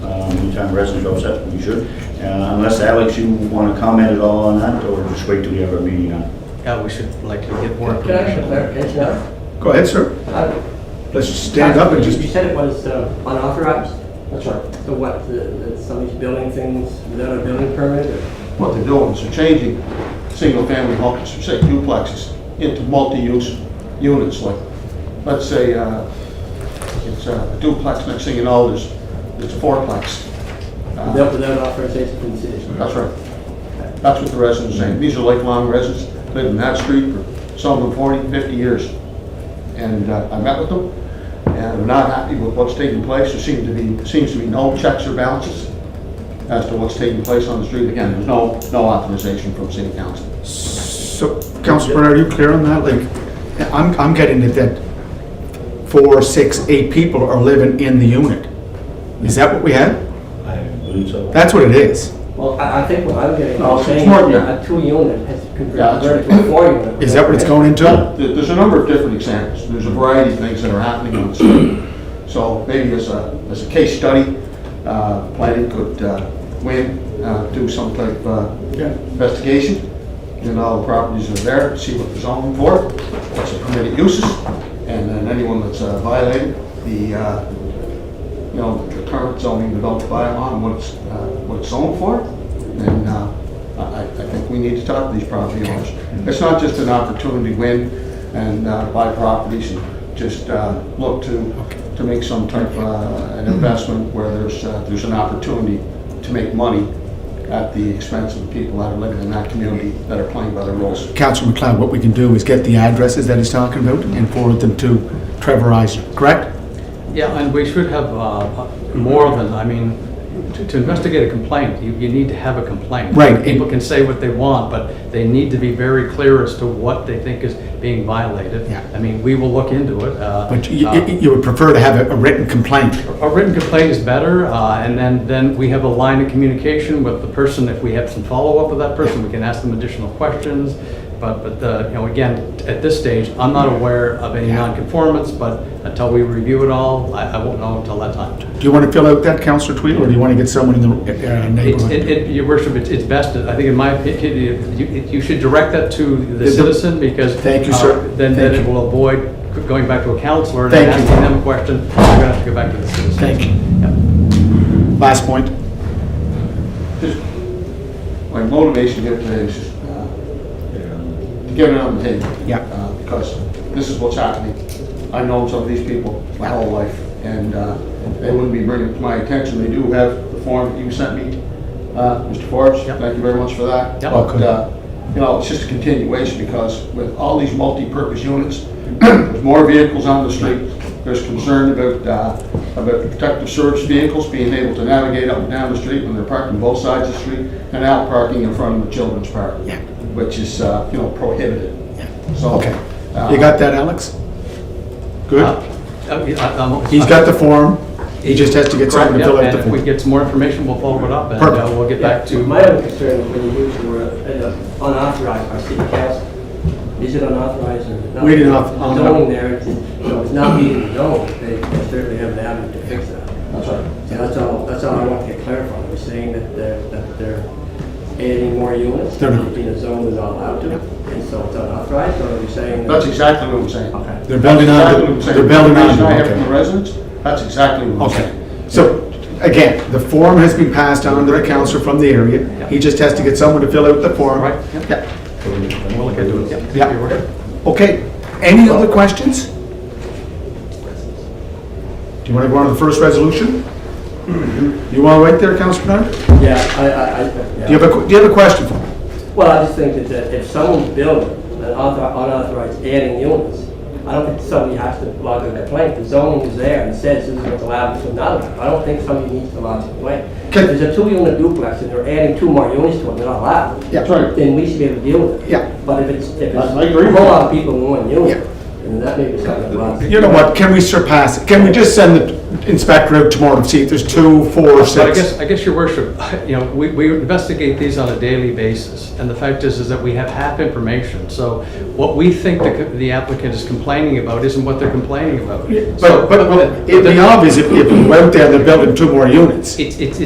Uh, longtime resident of Upset, you should. Uh, Unless, Alex, you want to comment at all on that, or just wait till you have a meeting on it? Yeah, we should likely get more Can I ask a information. clarification now? Go ahead, sir. Uh, Let's just stand up and you- just, You said it was uh, unauthorized, That's right. so what, the- that somebody's building things without a building permit? or- What they're doing is they're changing single-family homes, say duplexes, into multi-use units, like, let's say, uh, it's uh, a duplex, next thing you know, there's, there's a fourplex. Uh, Built without authorization from the city? That's right. That's what the residents are saying. These are lifelong residents, lived in that street for some of them 40, 50 years. And uh, I met with them, and they're not happy with what's taking place. There seems to be, seems to be no checks or balances as to what's taking place on the street. Again, there's no, no authorization from city council. so, Councilor Bernard, are you clear on that? Like, I'm, I'm getting it that four, six, eight people are living in the unit. Is that what we had? I believe so. That's what it is. Well, I, I think what I'm getting, No, I'm it's saying more than that. a two unit has Yeah, that's converted to a four unit. Is that what it's going into? There- There's a number of different examples. There's a variety of things that are happening on the street. So maybe as a, as a case study, uh, planning could, uh, win, uh, do some type of uh, investigation. And all the properties are there, see what they're zoning for, what's the permitted uses, and then anyone that's uh, violated the, uh, you know, the current zoning developed bylaw and what it's, uh, what it's zoned for. And uh, I, I think we need to talk to these property owners. It's not just an opportunity to win and uh, buy properties and just uh, look to, to make some type of uh, an investment where there's, uh, there's an opportunity to make money at the expense of the people that are living in that community that are playing by the rules. Councilor McLeod, what we can do is get the addresses that he's talking about and forward them to Trevor Eisner, correct? Yeah, and we should have uh, more than, I mean, to to investigate a complaint, you, you need to have a complaint. Right. People can say what they want, but they need to be very clear as to what they think is being violated. Yeah. I mean, we will look into it. uh, But you, uh, you would prefer to have a- a written complaint? A written complaint is better, uh, and then, then we have a line of communication with the person. If we have some follow-up with that person, we can ask them additional questions. But, but, the- you know, again, at this stage, I'm not aware of any nonconformance, but until we review it all, I, I won't know until that time. Do you want to fill out that, Councilor Tweedle, or do you want to get someone in the uh, It's, it, neighborhood? it, your worship, it's, it's best, I think in my opinion, you, you should direct that to the The- citizen because. Thank you, uh, sir. Then, then Thank it you. will avoid going back to a counselor and then Thank you. asking them a question. You're gonna have to go back to the citizen. Thank you. Yeah. Last point. Just My motivation to get today is just uh, to get it on the table. Yeah. Uh, Because this is what's happening. I've known some of these people my whole life, and uh, they wouldn't be bringing it to my attention. They do have the form that you sent me, uh, Mr. Forbes. Yep. Thank you very much for that. Yep. But, uh, you know, it's just a continuation, because with all these multi-purpose units, there's more vehicles on the street. There's concern about, uh, about the protective service vehicles being able to navigate up and down the street when they're parking both sides of the street, and out parking in front of the children's park Yeah. which is, uh, you know, prohibited. So. Okay. uh, You got that, Alex? Good? Uh, oh, Good. He's got the form, he just has to get someone to fill out And the if we form. get some more information, we'll follow it up and uh, Perfect. we'll get back to. My other concern is when you use the word uh, unauthorized by city council, is it unauthorized or not? We did not- The Zoning there, it's- you know, it's not being zoned, they they certainly have an avenue to fix that. That's right. So that's all, that's all I want to get clarified, we're saying that they're, that they're adding more units, They're not. in a zone that's not allowed to, and so it's unauthorized, or are we saying? that- That's exactly what I'm saying. Okay. They're building That's exactly on, what I'm the- saying. they're building on, The information I have from the okay. residents, that's exactly what I'm saying. Okay. So, again, the form has been passed on to the councillor from the area, he just has to get someone to fill out the form. Right, Yeah. We'll look into it. Yeah. Your worship. Okay, any other questions? Do you want to go on to the first resolution? You want to wait there, Councilor Bernard? Yeah, I, I, I. yeah. Do you have a, que- do you have a question for me? Well, I just think that- that if someone's building an unauthor- unauthorized adding units, I don't think somebody has to lodge a complaint. The zoning is there and says this is what's allowed, this is not allowed. I don't think somebody needs to lodge a complaint. Can- If there's a two-unit duplex and they're adding two more units to it, they're not allowed. Yeah. That's right. Then we should be able to deal with it. Yeah. But if it's, if it's I- I a agree with whole you. lot of people in one Yeah. unit, then that may be something about. You know what, can we surpass it? Can we just send the inspector out tomorrow and see if there's two, four, But I guess, six? I guess, your worship, you know, we, we investigate these on a daily basis, and the fact is, is that we have half information. So what we think the co- the applicant is complaining about isn't what they're complaining about. But, but, well, it'd be obvious if, if we went there, they're building two more units. It's, it's,